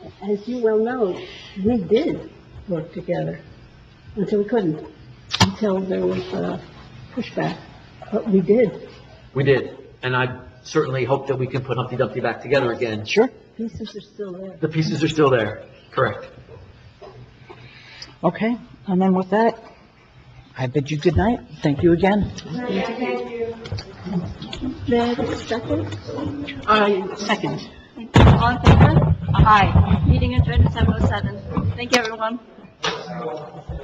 as you well know, we did work together until we couldn't, until there was uh, pushback. But we did, We did, and I certainly hope that we can put Humpty Dumpty back together again. Sure. pieces are still there. The pieces are still there, correct. Okay, and then with that, I bid you good night. Thank you again. May I have a second? I Uh, second. All in oh favor? Aye. Meeting adjourned at 7:07. Thank you, everyone.